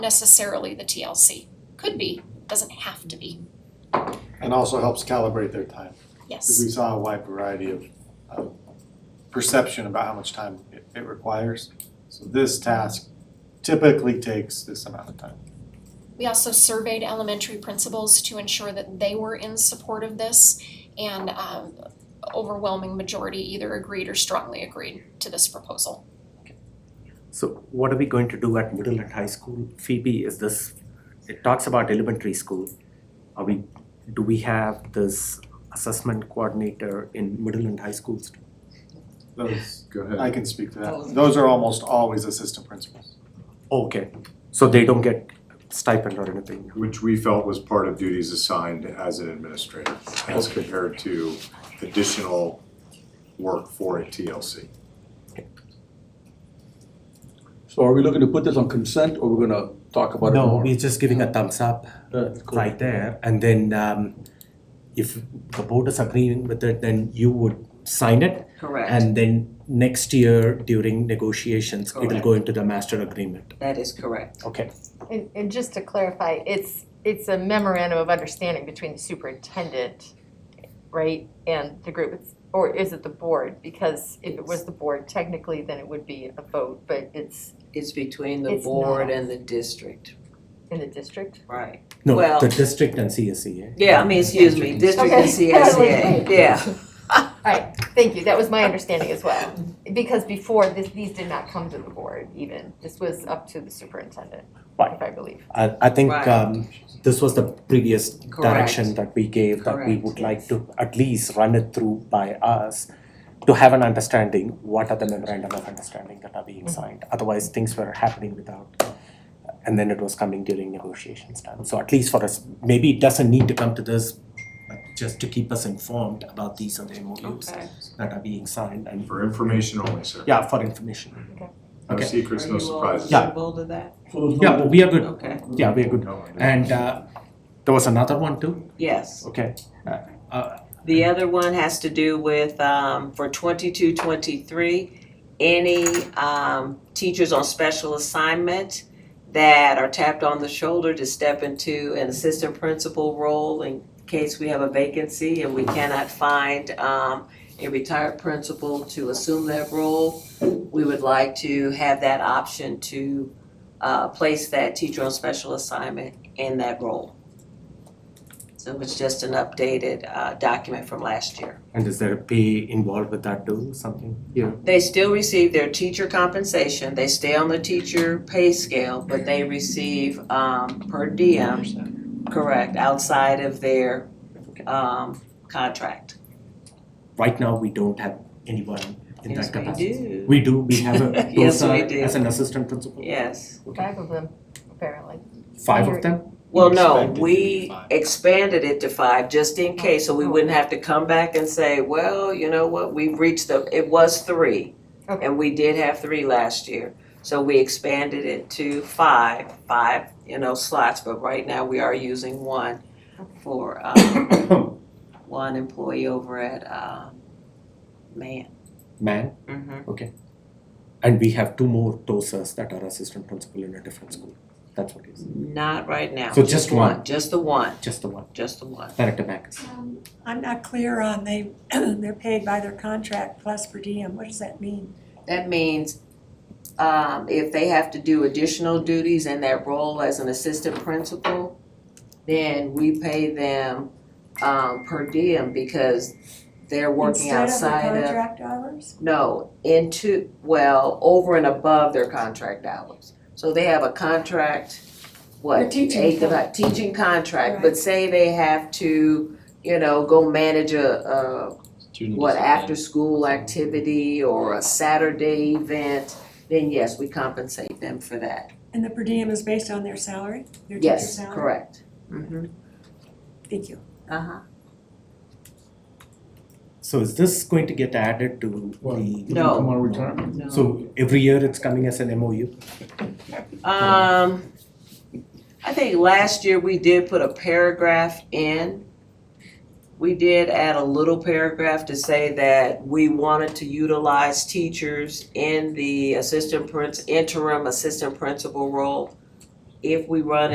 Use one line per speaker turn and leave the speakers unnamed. necessarily the TLC. Could be, doesn't have to be,
And also helps calibrate their time, because
yes.
we saw a wide variety of, of perception about how much time it, it requires. So this task typically takes this amount of time.
We also surveyed elementary principals to ensure that they were in support of this and um overwhelming majority either agreed or strongly agreed to this proposal.
So what are we going to do at middle and high school? Phoebe, is this, it talks about elementary school. Are we, do we have this assessment coordinator in middle and high schools?
Those,
Go
I
ahead.
can speak to that. Those are almost always assistant principals.
Okay, so they don't get stipend or anything?
Which we felt was part of duties assigned as an administrator, as compared to additional work for a TLC.
So are we looking to put this on consent or we're gonna talk about it
No,
tomorrow?
we're just giving a thumbs up
Uh, cool.
right there. And then um, if the board is agreeing with it, then you would sign it.
Correct,
And then next year during negotiations, it'll
Correct.
go into the master agreement.
that is correct.
Okay.
And, and just to clarify, it's, it's a memorandum of understanding between the superintendent, right, and the group, It's- or is it the board? Because if it was the board, technically, then it would be a vote, but it's
It's between the
It's
board
not.
and the district,
in the district.
right?
No,
Well-
the district and E. CSEA.
Yeah, I mean, excuse me, district and
Okay. I was
CSEA,
like,
yeah,
Thank you, that was my understanding as well. Because before, this, these did not come to the board even, this was up to the superintendent,
Right.
if I believe.
I, I think
Right.
um, this was the previous direction that
Correct.
we gave, that we would like
Correct.
to at least run it through by us to have an understanding, what are the memorandum of understanding that are being
Mm-hmm.
signed? Otherwise, things were happening without, and then it was coming during negotiations time. So at least for us, maybe it doesn't need to come to this, but just to keep us informed about these are the MOUs
okay.
that are being signed and,
For information only, sir.
yeah, for information.
No
Okay.
secrets, no surprises.
Yeah.
to that?
Yeah, but we are good,
Okay,
yeah, we are good.
No, I didn't.
And uh, there was another one too,
yes.
okay. Uh, uh,
The other one has to do with, um, for twenty-two, twenty-three, any, um, teachers on special assignment that are tapped on the shoulder to step into an assistant principal role in case we have a vacancy and we cannot find, um, a retired principal to assume that role, we would like to have that option to, uh, place that teacher on special assignment in that role. So it's just an updated, uh, document from last year.
And is there a pay involved with that too, something? Yeah.
They still receive their teacher compensation, they stay on the teacher pay scale, but they receive um per diem, correct, outside of their um contract.
Right now, we don't have anyone in
Yes,
that
we
capacity.
do.
We do, we have a
Yes,
those are
we do.
as an assistant principal,
Yes,
Five of them, apparently.
five of them?
well, no,
Expected to be
we
five.
expanded it to five, just in case, so we wouldn't have to come back and say, well, you know what, we've reached the, it was three.
Okay.
And we did have three last year, so we expanded it to five, five, you know, slots, but right now we are using one for um one employee over at uh, Man.
Man, and we have two more TOSAs that are assistant principal in a different school. That's what it is,
Not right now.
So just one.
Just the one,
just the one,
just the one.
Director Backus.
Um, I'm not clear on they, they're paid by their contract plus per diem, what does that mean?
That means um, if they have to do additional duties in that role as an assistant principal, then we pay them um, per diem because they're working outside
Instead of the
of,
contract hours?
no, into, well, over and above their contract hours. So they have a contract,
They're
what,
teaching
eight, to
them.
nine- teaching contract, but say they have to, you know, go manage a, a what, after-school activity or a Saturday event, then yes, we compensate them for that.
And the per diem is based on their salary, their teacher's
Yes,
salary?
correct. Mm-hmm.
Thank you.
Uh-huh.
So is this going to get added to the?
No. Come
retirement? So every year it's coming as an MOU?
Um, I think last year we did put a paragraph in. We did add a little paragraph to say that we wanted to utilize teachers in the assistant prin, interim assistant principal role if we run